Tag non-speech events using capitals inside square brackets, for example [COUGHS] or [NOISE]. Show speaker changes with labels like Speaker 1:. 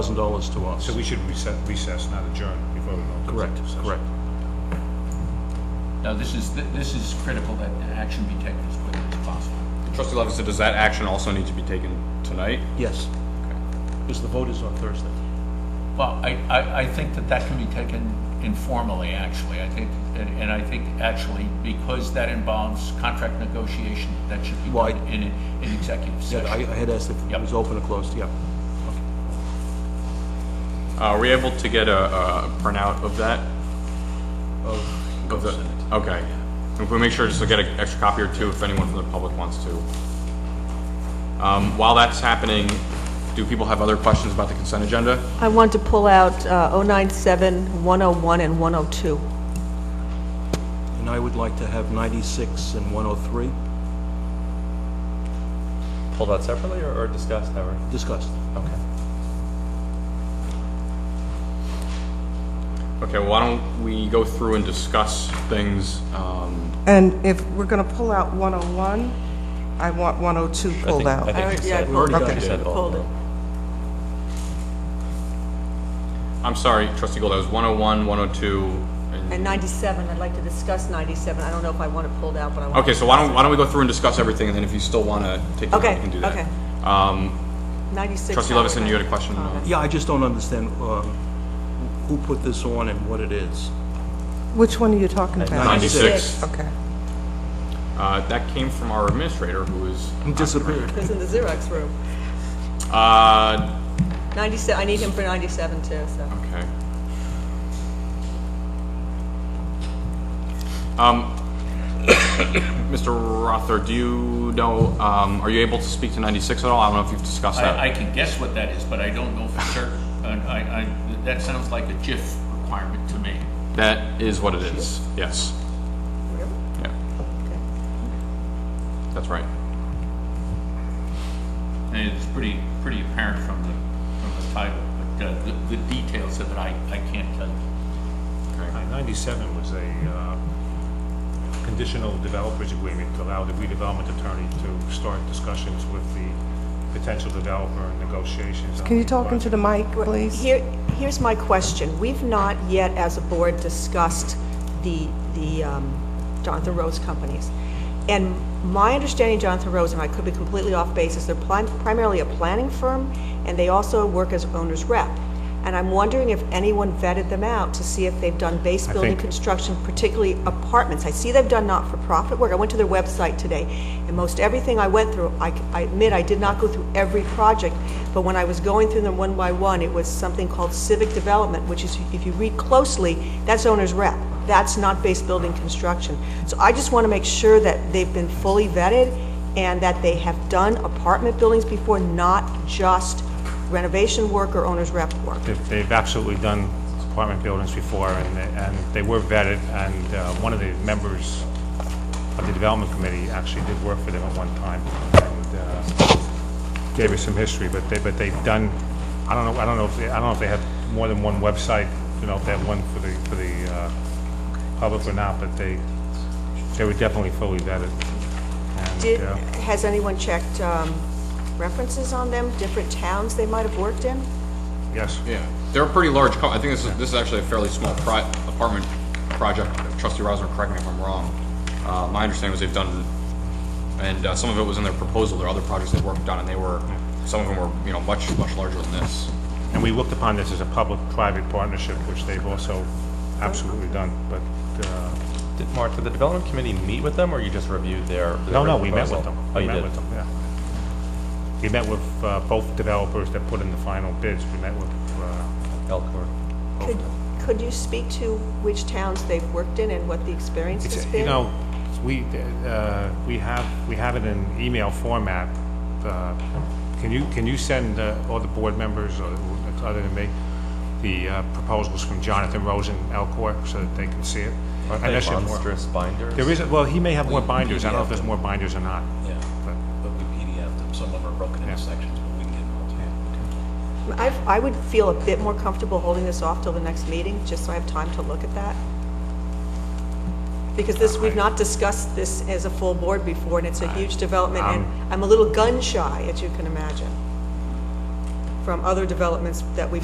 Speaker 1: thousand dollars to us.
Speaker 2: So we should recess, recess, not adjourn, before we go into
Speaker 1: Correct,
Speaker 2: executive session.
Speaker 1: correct.
Speaker 3: Now, this is, this is critical that action be taken as quickly as possible.
Speaker 4: Trustee Levinson, does that action also need to be taken tonight?
Speaker 1: Yes. Because the vote is on Thursday.
Speaker 3: Well, I, I, I think that that can be taken informally, actually. I think, and and I think actually, because that involves contract negotiation, that should be
Speaker 1: Well, I-
Speaker 3: done in, a- in executive
Speaker 1: Yeah, I I
Speaker 3: session.
Speaker 1: had asked if it
Speaker 3: Yep.
Speaker 1: was open or closed, yeah.
Speaker 4: Uh, Are we able to get a, a printout of that? Of the, okay. If we make sure just to get an extra copy or two if anyone from the public wants to. Um, while that's happening, do people have other questions about the consent agenda?
Speaker 5: I want to pull out uh, 097, 101, and 102.
Speaker 1: And I would like to have ninety-six and one oh three
Speaker 6: Pulled out separately or, or discussed ever?
Speaker 1: discussed.
Speaker 6: Okay.
Speaker 4: Okay, why don't we go through and discuss things, um,
Speaker 7: And if we're going to pull out 101, I want 102 pulled
Speaker 6: I
Speaker 7: out.
Speaker 6: think you said-
Speaker 1: Already done
Speaker 6: you
Speaker 1: it.
Speaker 6: said both of them.
Speaker 4: I'm sorry, trustee Gold, that was 101, 102, and...
Speaker 5: And 97, I'd like to discuss 97. I don't know if I want it pulled out, but I want.
Speaker 4: Okay, so why don't, why don't we go through and discuss everything, and then if you still want to take the vote,
Speaker 5: Okay,
Speaker 4: you can do that.
Speaker 5: okay.
Speaker 4: Um,
Speaker 5: 96.
Speaker 4: Trustee Levinson, you had a question?
Speaker 5: Uh,
Speaker 1: Yeah, I just don't understand um, who put this on and what it is.
Speaker 7: Which one are you talking about?
Speaker 4: 96.
Speaker 7: Okay.
Speaker 4: Uh, That came from our administrator, who is...
Speaker 3: Mm.
Speaker 1: He disappeared.
Speaker 5: It's in the Xerox room.
Speaker 4: Uh,
Speaker 5: 97, I need him for 97 too, so.
Speaker 4: okay. Um, [COUGHS] Mr. Rother, do you know, um, are you able to speak to 96 at all? I don't know if you've discussed that.
Speaker 3: I, I can guess what that is, but I don't know for certain. And I, I, that sounds like a JIF requirement to me.
Speaker 4: That is what it is, yes. Yeah. That's right.
Speaker 3: And it's pretty, pretty apparent from the, from the title, but uh, the, the details of it, I, I can't tell you.
Speaker 2: Uh, 97 was a uh, conditional developers agreement to allow the redevelopment attorney to start discussions with the potential developer and negotiations. on
Speaker 7: Can you talk into the
Speaker 2: project.
Speaker 7: mic, please?
Speaker 5: Here, here's my question. We've not yet, as a board, discussed the, the um, Jonathan Rose companies. And my understanding, Jonathan Rose, and I could be completely off base, is they're prim- primarily a planning firm, and they also work as owner's rep. And I'm wondering if anyone vetted them out to see if they've done base
Speaker 2: I
Speaker 5: building
Speaker 2: think-
Speaker 5: construction, particularly apartments. I see they've done not-for-profit work. I went to their website today, and most everything I went through, I c- I admit, I did not go through every project, but when I was going through them one by one, it was something called civic development, which is, if you read closely, that's owner's rep. That's not base building construction. So I just want to make sure that they've been fully vetted and that they have done apartment buildings before, not just renovation work or owner's rep work.
Speaker 2: They've- They've absolutely done apartment buildings before, and, and they were vetted, and uh, one of the members of the development committee actually did work for them at one time, and uh, gave us some history, but they, but they've done, I don't know, I don't know if, they I don't know if they have more than one website, you know, if they have one for the, for the uh, public or not, but they, they were definitely fully vetted. And,
Speaker 5: Did,
Speaker 2: uh,
Speaker 5: has anyone checked um, references on them, different towns they might have worked in?
Speaker 2: Yes.
Speaker 4: Yeah, they're a pretty large, co- I think this is, this is actually a fairly small pri- apartment project. Trustee Rosner, correct me if I'm wrong. Uh, my understanding was they've done, and uh, some of it was in their proposal, there are other projects they've worked on, and they were, some of them were, you know, much, much larger than this.
Speaker 2: And we looked upon this as a public-private partnership, which they've also absolutely done, but, uh,
Speaker 6: Did, Mark, did the development committee meet with them or you just reviewed their? their
Speaker 2: no, no, we met
Speaker 6: proposal?
Speaker 2: with them.
Speaker 6: Oh,
Speaker 2: We
Speaker 6: you
Speaker 2: met
Speaker 6: did?
Speaker 2: with them, yeah. We met with uh, both developers that put in the final bids, we met with, uh,
Speaker 6: Elkhorn.
Speaker 5: Could, could you speak to which towns they've worked in and what the experience has
Speaker 2: it's,
Speaker 5: been?
Speaker 2: you know, we, uh, we have, we have it in email format. Uh, Can you, can you send uh, all the board members, or other than me, the uh, proposals from Jonathan Rosen, Elcor, so that they can see it?
Speaker 6: Aren't
Speaker 2: And
Speaker 6: they
Speaker 2: there should more-
Speaker 6: monstrous binders?
Speaker 2: There is, a- well, he may have more binders, I don't know if there's more binders or not.
Speaker 8: Yeah, but we PDF them, some of them are broken
Speaker 2: Yeah.
Speaker 8: into sections, but we can get them all to you.
Speaker 5: I've- I would feel a bit more comfortable holding this off till the next meeting, just so I have time to look at that. Because this, we've not discussed this as a full board before, and it's a huge development, and I'm a little gun shy, as you can imagine. from other developments that we've